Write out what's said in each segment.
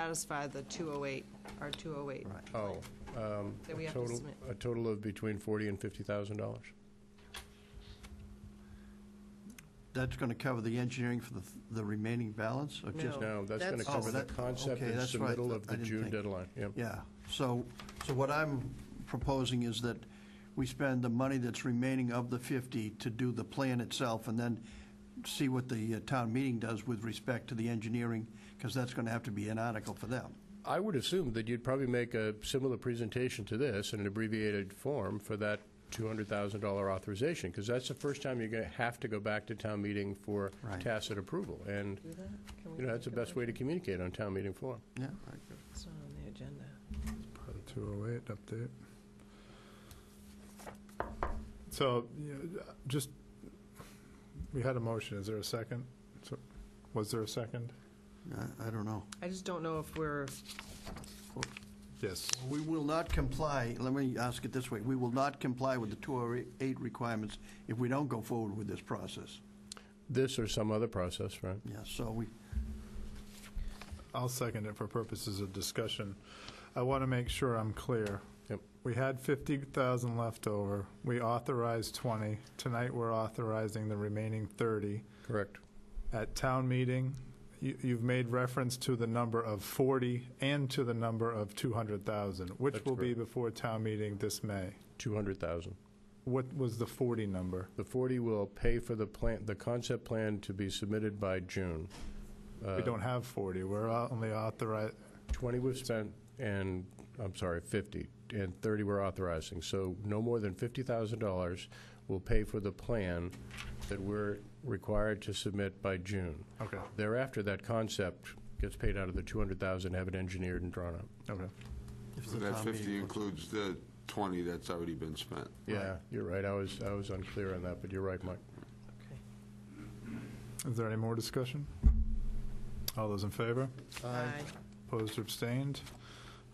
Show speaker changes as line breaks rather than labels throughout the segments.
satisfy the 208, our 208.
Right.
Oh, um,
That we
a
have to
total,
submit.
a total of between forty and fifty thousand dollars.
That's going to cover the engineering for the, the remaining balance, or just?
No.
No, that's going
That's-
to cover
Oh,
the
that-
concept
okay,
and
that's right.
submittal of
I
the
didn't
June
think.
deadline, yeah.
Yeah, so, so what I'm proposing is that we spend the money that's remaining of the 50 to do the plan itself, and then see what the uh, town meeting does with respect to the engineering, because that's going to have to be an article for them.
I would assume that you'd probably make a similar presentation to this in an abbreviated form for that two hundred thousand dollar authorization, because that's the first time you're going to have to go back to town meeting for
Right.
tacit approval, and,
Do that? Can we
you know, that's the
think
best
about
way to
that?
communicate on town meeting floor.
Yeah.
It's not on the agenda.
Part of 208 update. So, yeah, just, we had a motion, is there a second? So, Was there a second?
I don't know.
I just don't know if we're,
Yes.
We will not comply, let me ask it this way, we will not comply with the 208 requirements if we don't go forward with this process.
This or some other process, right?
Yeah, so we,
I'll second it for purposes of discussion. I want to make sure I'm clear.
Yep.
We had 50,000 left over, we authorized 20, tonight we're authorizing the remaining 30.
Correct.
At town meeting, you- you've made reference to the number of 40 and to the number of 200,000, which
That's
will be
correct.
before town meeting this May.
Two hundred thousand.
What was the 40 number?
The forty will pay for the plan, the concept plan to be submitted by June. Uh,
We don't have 40, we're au- only authorized,
20 we've spent, and, I'm sorry, 50, and 30 we're authorizing. So no more than $50,000 will pay for the plan that we're required to submit by June.
okay,
Thereafter, that concept gets paid out of the 200,000, have it engineered and drawn up.
okay.
if
So
the
that
town
50
meeting,
includes the 20 that's already been spent.
Yeah, you're right, I was, I was unclear on that, but you're right, Mike.
okay.
Is there any more discussion? All those in favor?
Aye.
Opposed or abstained?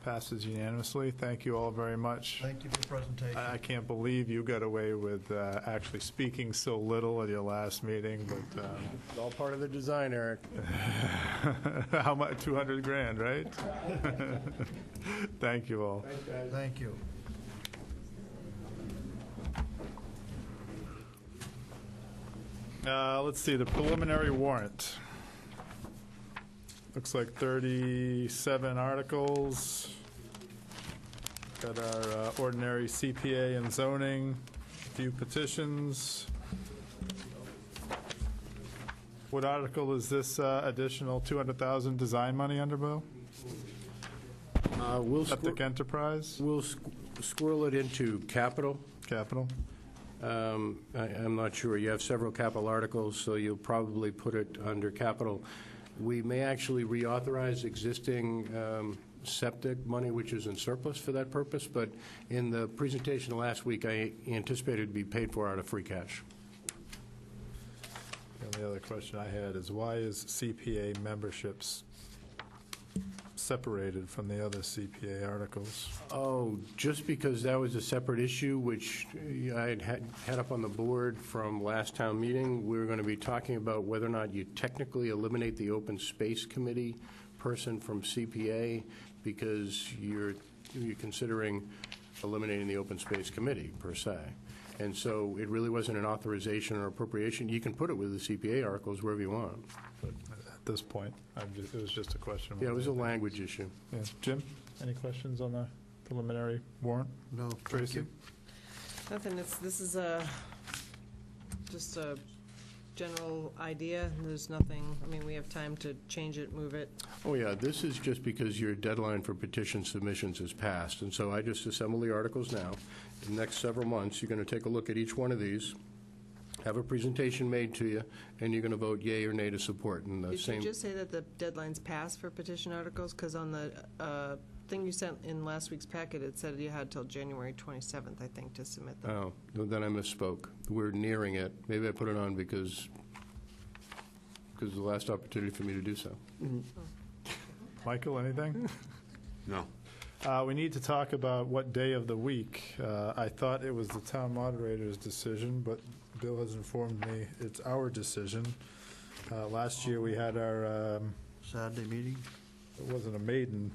Passes unanimously. Thank you all very much.
thank you for the presentation.
I I can't believe you got away with uh, actually speaking so little at your last meeting, but um,
It's all part of the design, Eric.
how much, 200 grand, right? Thank you all.
Thank you.
Uh, Let's see, the preliminary warrant. Looks like 37 articles. Got our uh, ordinary CPA and zoning, a few petitions. What article is this uh, additional 200,000 design money under, Bill?
Uh, We'll
Septic enterprise,
we'll squirrel it into capital.
capital?
Um, I- I'm not sure. You have several capital articles, so you'll probably put it under capital. We may actually reauthorize existing um, septic money, which is in surplus for that purpose, but in the presentation last week, I anticipated it'd be paid for out of free cash.
And the other question I had is why is CPA memberships separated from the other CPA articles?
Oh, just because that was a separate issue, which uh, I had had had up on the board from last town meeting, we were going to be talking about whether or not you technically eliminate the open space committee person from CPA, because you're, you're considering eliminating the open space committee, per se. And so it really wasn't an authorization or appropriation. You can put it with the CPA articles wherever you want.
At this point, I'm just, it was just a question.
Yeah, it was a language issue.
Yeah. Jim, any questions on the preliminary warrant?
No, thank
Tracy?
you.
Nothing, it's, this is a, just a general idea, and there's nothing, I mean, we have time to change it, move it.
Oh, yeah, this is just because your deadline for petition submissions is passed, and so I just assemble the articles now. In the next several months, you're going to take a look at each one of these, have a presentation made to you, and you're going to vote yea or nay to support, and the
Did you
Uh, same,
just say that the deadline's passed for petition articles? Because on the uh, thing you sent in last week's packet, it said you had till January 27th, I think, to submit them.
oh, then I misspoke. We're nearing it. Maybe I put it on because, because it's the last opportunity for me to do so.
Michael, anything?
No.
Uh, we need to talk about what day of the week. Uh, I thought it was the town moderator's decision, but Bill has informed me it's our decision. Uh, last year, we had our, um,
Saturday meeting?
It wasn't a maiden